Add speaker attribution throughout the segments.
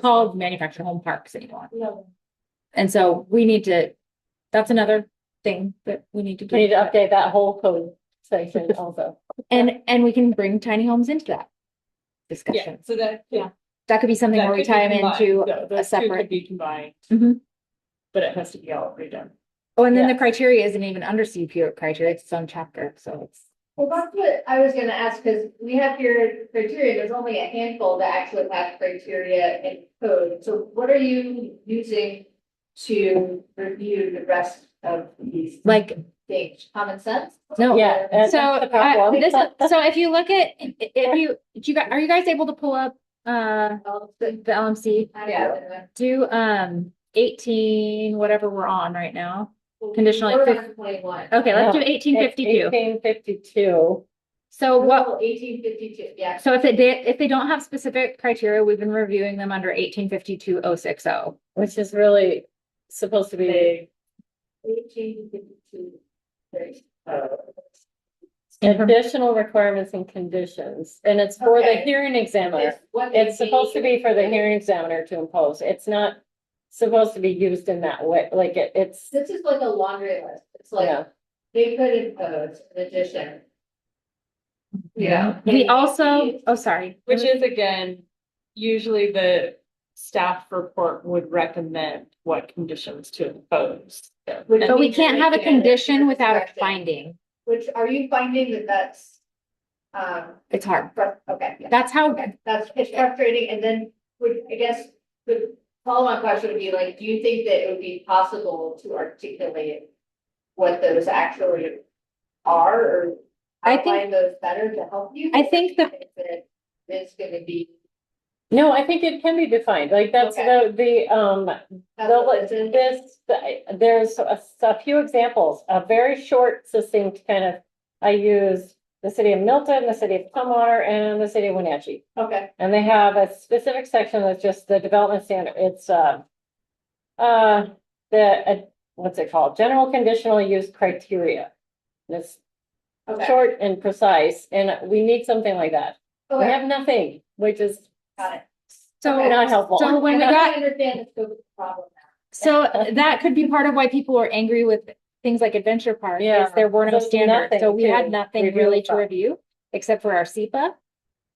Speaker 1: called manufactured home parks anymore. And so we need to, that's another thing that we need to
Speaker 2: We need
Speaker 1: do.
Speaker 2: to update that whole code section also.
Speaker 1: And, and we can bring tiny homes into that
Speaker 3: Yeah,
Speaker 1: discussion.
Speaker 3: so that.
Speaker 2: Yeah.
Speaker 1: That could be something
Speaker 3: that
Speaker 1: where we
Speaker 3: could be
Speaker 1: tie them
Speaker 3: combined.
Speaker 1: into
Speaker 3: Tho- those two
Speaker 1: a
Speaker 3: could
Speaker 1: separate.
Speaker 3: Be combined,
Speaker 1: Mhm.
Speaker 3: but it has to be all redone.
Speaker 1: Oh, and then the
Speaker 2: Yes.
Speaker 1: criteria isn't even under CUP criteria, it's its own chapter, so it's.
Speaker 4: Well, that's what I was gonna ask, because we have your criteria, there's only a handful that actually have criteria and code. So what are you using to review the rest of these
Speaker 1: Like,
Speaker 4: things? Common sense?
Speaker 1: no.
Speaker 2: Oh, Yeah. and
Speaker 1: So,
Speaker 2: that's the problem.
Speaker 1: uh, this, so if you look at, if you, do you, gu- are you guys able to pull up, uh,
Speaker 4: Well,
Speaker 1: the
Speaker 4: the-
Speaker 1: the LMC?
Speaker 4: Yeah.
Speaker 1: Do, um, eighteen, whatever we're on right now. Conditional, like,
Speaker 4: We're on Twenty-one.
Speaker 1: Okay, let's do eighteen fifty-two.
Speaker 2: Eighteen fifty-two.
Speaker 1: So what,
Speaker 4: Eighteen fifty-two, yeah.
Speaker 1: So if it did, if they don't have specific criteria, we've been reviewing them under eighteen fifty-two oh six oh.
Speaker 2: Which is really supposed to be
Speaker 4: Eighteen fifty-two. Great.
Speaker 3: Uh,
Speaker 1: Mm-hmm.
Speaker 2: additional requirements and conditions, and it's for the
Speaker 4: Okay.
Speaker 2: hearing examiner.
Speaker 4: It's what they
Speaker 2: It's supposed to
Speaker 4: need.
Speaker 2: be for the hearing examiner to impose. It's not supposed to be used in that way, like it, it's,
Speaker 4: This is like a laundry list. It's like,
Speaker 2: yeah.
Speaker 4: they could impose an addition.
Speaker 1: We also, oh, sorry.
Speaker 3: Which is again, usually the staff report would recommend what conditions to impose. So,
Speaker 4: Which-
Speaker 3: and
Speaker 1: But we can't have a condition without a
Speaker 4: Correct.
Speaker 1: finding.
Speaker 4: Which, are you finding that that's, um,
Speaker 1: It's hard.
Speaker 4: frus- okay, yeah,
Speaker 1: That's how,
Speaker 4: okay, that's, it's frustrating, and then, would, I guess, the follow-on question would be like, do you think that it would be possible to articulate what those actually are, or
Speaker 1: I think-
Speaker 4: outline those better to help you?
Speaker 1: I think the-
Speaker 4: that It's gonna be.
Speaker 2: No, I think it can be defined, like that's the, the, um, Well, like, this, there's a, a few examples, a very short succinct kind of, I use the city of Milton, the city of Tumwater, and the city of Wenatchee.
Speaker 4: Okay,
Speaker 2: And they have a specific section that's just the development standard, it's, uh, uh, the, uh, what's it called, general conditional use criteria. And It's
Speaker 4: okay,
Speaker 2: short and precise, and we need something like that. We
Speaker 4: okay,
Speaker 2: have nothing, which is
Speaker 4: got it.
Speaker 1: so,
Speaker 2: not helpful.
Speaker 1: so when we
Speaker 4: I
Speaker 1: got,
Speaker 4: Understand the scope of the problem
Speaker 1: so that could be part of why people were angry with things like Adventure Park, is there were no
Speaker 2: There's
Speaker 1: standards. So
Speaker 2: nothing
Speaker 1: we had
Speaker 2: to
Speaker 1: nothing
Speaker 2: review
Speaker 1: really to
Speaker 2: about.
Speaker 1: review, except for our SEPA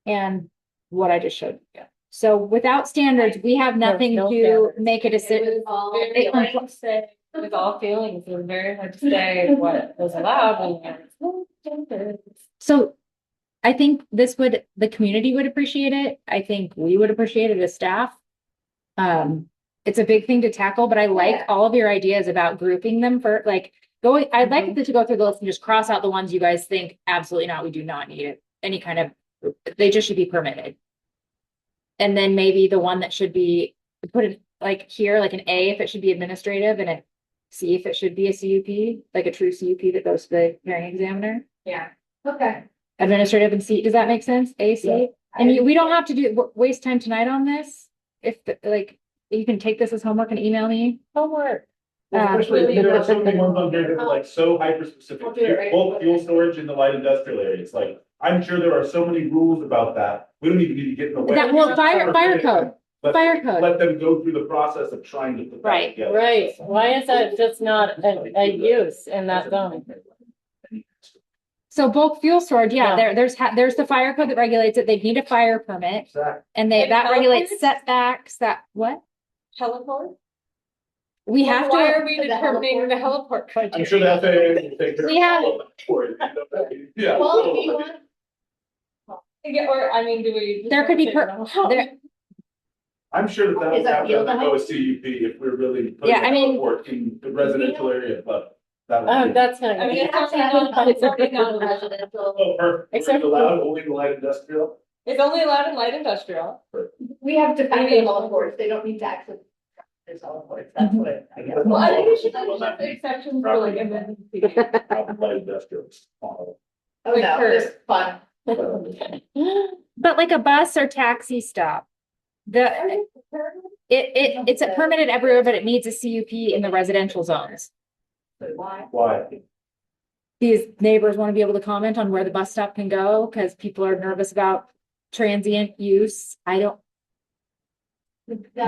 Speaker 1: and what I just showed. you.
Speaker 3: Yeah.
Speaker 1: So without standards, we have nothing
Speaker 2: no
Speaker 1: to
Speaker 2: standards.
Speaker 1: make a
Speaker 4: now. It
Speaker 1: decision.
Speaker 4: was all-
Speaker 3: Very hard to say, with all feelings, it was very hard to say what was allowed
Speaker 2: "Oh,
Speaker 3: and.
Speaker 1: So I think this would, the community would appreciate it. I think we would appreciate it as staff. Um, it's a big thing to tackle, but I like
Speaker 4: Yeah.
Speaker 1: all of your ideas about grouping them for like going, I'd like to go through the list and just cross out the ones you guys think absolutely not, we do not need it. Any kind of, they just should be permitted. And then maybe the one that should be put in like here, like an A if it should be administrative and a C if it should be a CUP, like a true CUP that goes to the hearing examiner
Speaker 4: Yeah, okay.
Speaker 1: administrative and C, does that make sense? A, C? And you- we don't have to do, wa- waste time tonight on this. If, the- like, you can take this as homework and email me.
Speaker 2: homework.
Speaker 1: Um,
Speaker 5: Especially there are so many ones on there that are like so hyper specific,
Speaker 4: We'll do it right.
Speaker 5: both fuel storage and the light industrial area, it's like, I'm sure there are so many rules about that, we don't even need to get in the way.
Speaker 1: That, well, fire, fire code,
Speaker 5: Let-
Speaker 1: fire code.
Speaker 5: Let them go through the process of trying to. put that
Speaker 1: Right,
Speaker 5: together.
Speaker 2: Right, why is that just not a, a use in that zone?
Speaker 1: So bulk fuel storage, yeah,
Speaker 2: Yeah.
Speaker 1: there, there's, ha- there's the fire code that regulates it. They need a fire permit
Speaker 5: Exactly.
Speaker 1: and they,
Speaker 3: And
Speaker 1: that regulates
Speaker 3: helicopters?
Speaker 1: setbacks, that, what?
Speaker 3: Heliport?
Speaker 1: We have
Speaker 3: Why are
Speaker 1: to,
Speaker 3: we
Speaker 4: to the
Speaker 3: determining the heliport?
Speaker 5: I'm sure that they will take care of
Speaker 1: We have-
Speaker 5: all of that for you. Yeah.
Speaker 4: Well, if you want
Speaker 3: Yeah, or I mean, do we?
Speaker 1: There could be per- there,
Speaker 5: I'm sure that that
Speaker 4: Is
Speaker 5: would
Speaker 4: that
Speaker 5: have to
Speaker 4: field
Speaker 5: go a CUP if we're really putting
Speaker 1: Yeah, I mean-
Speaker 5: a work in the residential area, but that would be.
Speaker 2: Oh, that's not.
Speaker 3: I mean,
Speaker 4: You
Speaker 3: it's
Speaker 4: have to
Speaker 3: only
Speaker 4: have
Speaker 3: on- it's
Speaker 4: a
Speaker 3: only on
Speaker 4: non-residential.
Speaker 5: Oh, perfect. We're
Speaker 2: Except for-
Speaker 5: Allowed only the light industrial?
Speaker 3: It's only allowed in light industrial.
Speaker 4: We have to find the all boards, they don't need to actually. There's all boards, that's what I guess.
Speaker 3: Well, I think we should have just the exceptions for like emergency.
Speaker 5: Probably light industrial. is small.
Speaker 4: Oh, no,
Speaker 3: Curve.
Speaker 4: just fun.
Speaker 5: um,
Speaker 1: but like a bus or taxi stop. The, it, it, it's permitted everywhere, but it needs a CUP in the residential zones.
Speaker 4: But why?
Speaker 5: Why?
Speaker 1: these neighbors want to be able to comment on where the bus stop can go because people are nervous about transient use. I don't.
Speaker 4: That